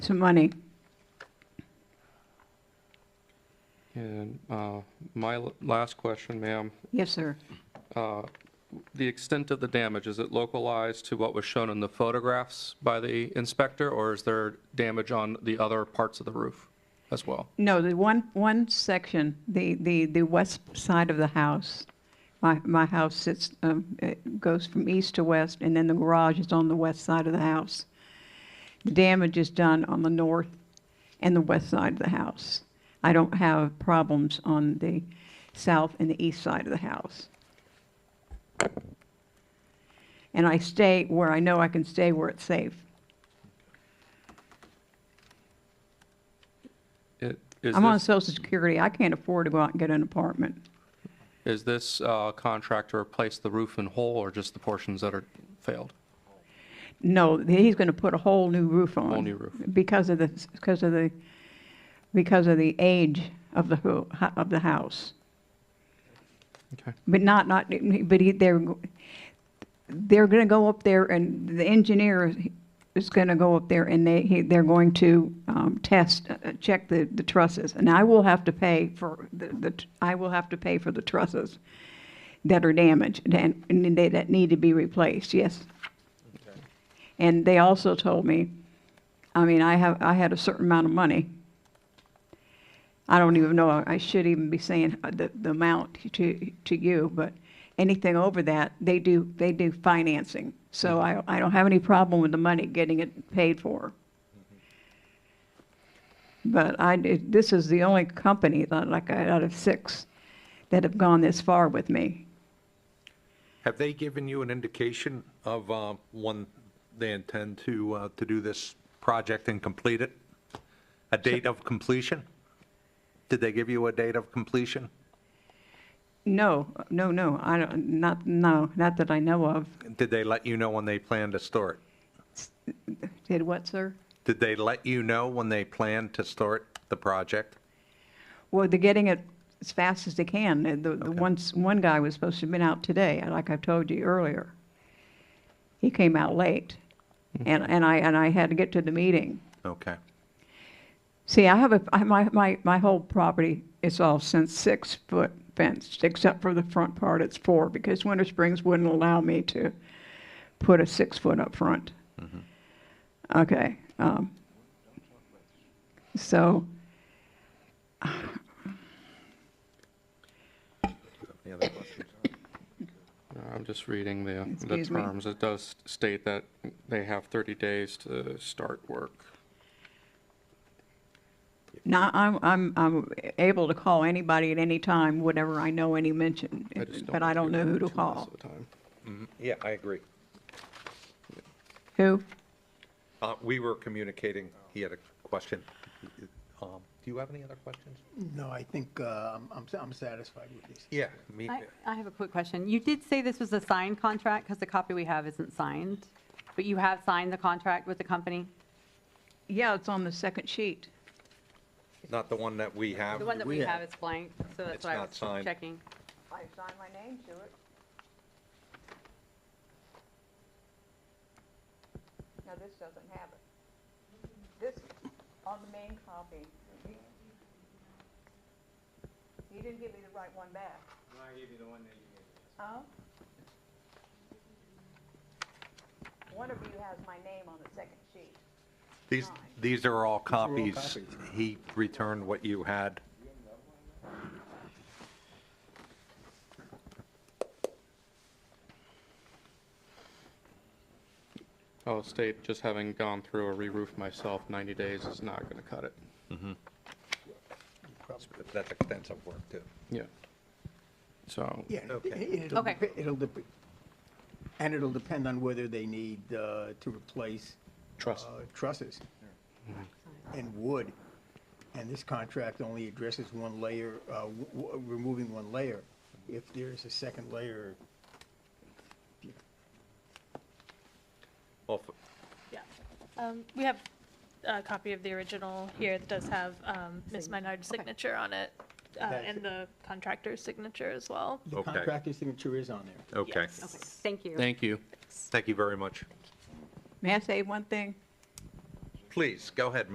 some money. And uh, my l- last question, ma'am, Yes, sir. uh, the extent of the damage, is it localized to what was shown in the photographs by the inspector, or is there damage on the other parts of the roof as well? No, the one, one section, the, the, the west side of the house. My, my house sits, um, it goes from east to west, and then the garage is on the west side of the house. The damage is done on the north and the west side of the house. I don't have problems on the south and the east side of the house. And I stay where I know I can stay where it's safe. It- Is I'm on this, social security, I can't afford to go out and get an apartment. is this uh, contractor replace the roof in whole, or just the portions that are failed? No, he's going to put a whole new roof on. new roof. Because of the, because of the, because of the age of the, ho- of the house. Okay. But not, not, but he, they're, they're going to go up there and the engineer is going to go up there and they, he- they're going to um, test, uh, check the, the trusses. And I will have to pay for the, the I will have to pay for the trusses that are damaged and, and they- that need to be replaced, yes. And they also told me, I mean, I have, I had a certain amount of money. I don't even know, I should even be saying uh, the, the amount to, to you, but anything over that, they do, they do financing. So I, I don't have any problem with the money, getting it paid for. But I, did- this is the only company, that, like, out of six, that have gone this far with me. Have they given you an indication of uh, when they intend to, uh, to do this project and complete it? A date of completion? Did they give you a date of completion? No, no, no, I don't, not, no, not that I know of. Did they let you know when they plan to store it? Did what, sir? Did they let you know when they plan to start the project? Well, they're getting it as fast as they can. And The, the ones, one guy was supposed to have been out today, and like I told you earlier. He came out late, and, and I, and I had to get to the meeting. Okay. See, I have a, I- my, my, my whole property is all since six-foot fenced, except for the front part, it's four, because Winter Springs wouldn't allow me to put a six-foot up front. Okay. um, So, Any other questions? Uh, I'm just reading the, the Excuse me. terms. It does state that they have 30 days to start work. Now, I'm, I'm, I'm able to call anybody at any time, whenever I know any mention, I just but I don't know who to too most call. of the time. Yeah, I agree. Who? Uh, We were communicating, he had a question. Um, Do you have any other questions? No, I think uh, I'm- I'm I'm satisfied with this. Yeah, me, I, I have a quick question. You did say this was a signed contract, because the copy we have isn't signed, but you have signed the contract with the company? Yeah, it's on the second sheet. not the one that we have. The one that we We have. have is blank, so It's that's why I not was signed. checking. I signed my name to it. Now, this doesn't have it. This, on the main copy. You didn't give me the right one back. No, I gave you the one that you gave me. Huh? One of you has my name on the second sheet. These, these are all all copies. copies. He returned what you had. I'll state, just having gone through a re-roof myself, 90 days is not going to cut it. That's extensive work, too. Yeah. So, Yeah, and Okay. it- it'll, Okay. dep- it'll, dep- and it'll depend on whether they need uh, to replace trust, uh, trusses and wood. And this contract only addresses one layer, uh, w- w- removing one layer. If there's a second layer, Well, f- Yeah. Um, We have a copy of the original here that does have um, Ms. Sign- Minard's okay. signature on it, uh, That's- and the contractor's signature as well. the Okay. contractor's signature is on there. okay. Okay, thank you. thank you. Thank you very much. May I say one thing? Please, go ahead,